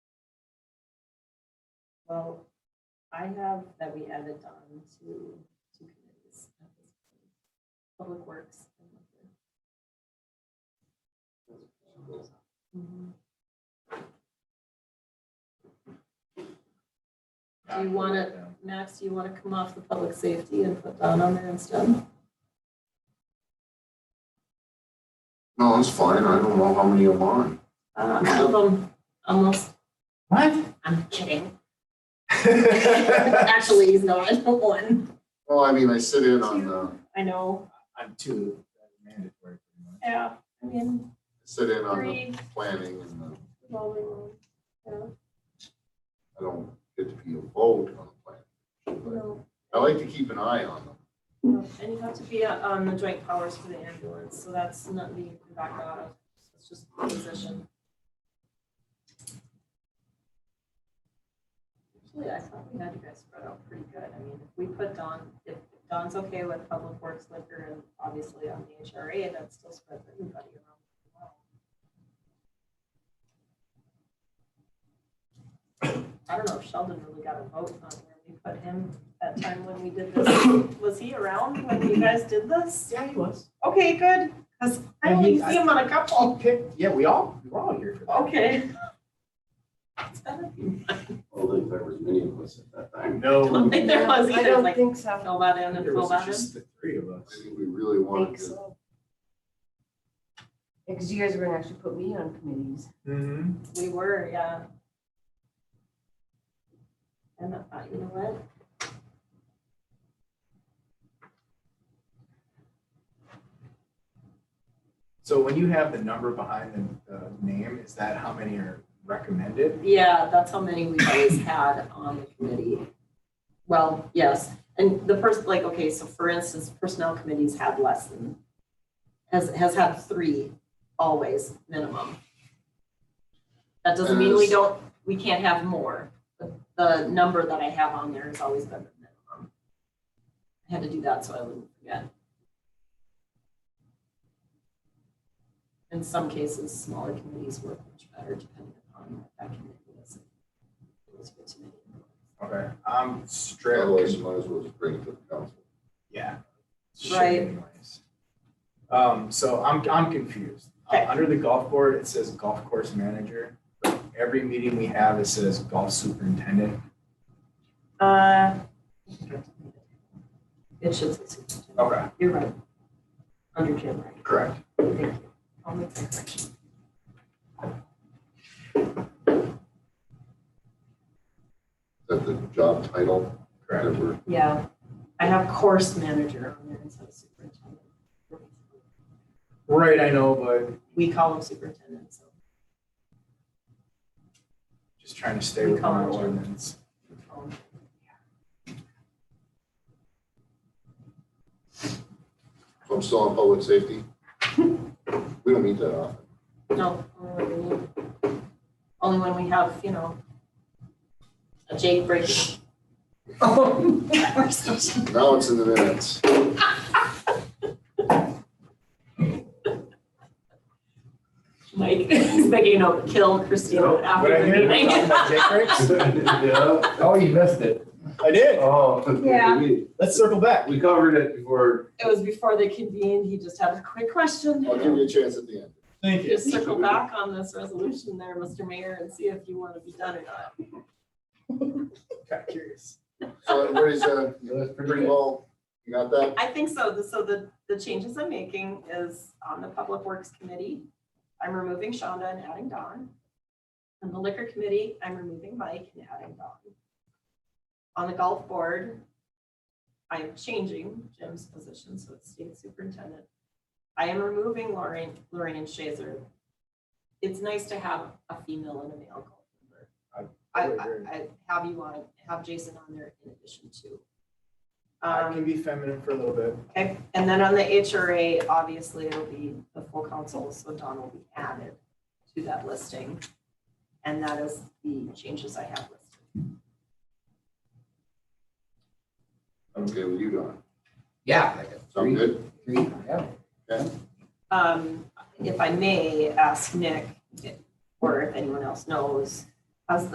Well, I have that we added on to two committees. at this point. Public Works. and Liquor. Mhm. Do you want to, Max, do you want to come off the public safety and put that on there instead? No, it's fine. I don't know how many I'm on. Uh, I don't know, almost, What? I'm kidding. Actually, he's not one. Well, I mean, I sit in on the, I I know. I'm two, that's mandatory pretty much. Yeah. I mean, sit in on the three. planning and the, rolling on. Yeah, I don't get to be a vote on the planning. no. but I like to keep an eye on them. And you have to be uh, on the joint powers for the ambulance, so that's nothing you can back out of. It's just a position. Actually, I thought we had you guys spread out pretty good. I mean, if we put Don, if Don's okay with public works liquor and obviously on the HRA, that still spreads everybody around. pretty well. I don't know if Sheldon really got a vote on where we put him that time when we did this. Was he around when you guys did this? Yeah, he was. Okay, good, because I And only he- see him on a couple. Okay, yeah, we all, we're all here for that. Okay. It's been a few- I don't think there was many of us at that time. I don't Oh, No. think there was I either, don't like, think so. fill that in and There fill was that in. just the three of us. I think we really wanted think to, so. Because you guys were gonna actually put me on committees. Mm-hmm. We were, yeah. And I thought, you know what? So when you have the number behind the, the name, is that how many are recommended? Yeah, that's how many we've always had on the committee. Well, yes, and the person, like, okay, so for instance, personnel committees had less than, has, has had three always minimum. That doesn't mean we Yes. don't, we can't have more, but the number that I have on there has always been the minimum. I had to do that so I wouldn't forget. In some cases, smaller committees work much better depending upon what that committee is. It was good to me. Okay, I'm straight. otherwise you might as well just bring it to the council. Yeah. Shit Right. anyways. Um, so I'm, I'm confused. Uh, Okay. Under the golf board, it says golf course manager. but Every meeting we have, it says golf superintendent. Uh. It should say superintendent. Okay, You're right. Under Jim, right? correct. Thank you. I'll make that correction. Is that the job title? Correct. that we're- Yeah, I have course manager on there instead of superintendent. Right, I know, but We call him superintendent, so just trying to stay with our Ecology. ordinance. we call him. So I'm still on public safety. We don't meet that often. No, only when we need. Only when we have, you know, a Jake break. Now it's in the minutes. Mike, he's making a note, kill Christina Would I after the hear meeting. that? My dick breaks? Yeah, Oh, you missed it. I did. oh. Yeah. we- Let's circle back. We covered it before. It was before they convened, he just had a quick question. I'll give you a chance at the end. Thank Just circle back on this resolution there, Mr. Mayor, and see if you want to be done or not. Kind of curious. So everybody's, uh, It was pretty well, you got that? I think so, The- so the, the changes I'm making is on the Public Works Committee, I'm removing Shonda and adding Don. On the Liquor Committee, I'm removing Mike and adding Don. On the Golf Board, I am changing Jim's position, so it's State Superintendent. I am removing Lorraine, Lorraine Shazer. It's nice to have a female and a male golf member. I, would I, agree. I have you on, have Jason on there in addition to. I Um, can be feminine for a little bit. Okay, and then on the HRA, obviously it'll be the full council, so Don will be added to that listing. And that is the changes I have listed. I'm okay with you, Don. Yeah, like a Sound three, good? three, yeah. Um, if I may ask Nick, or if anyone else knows,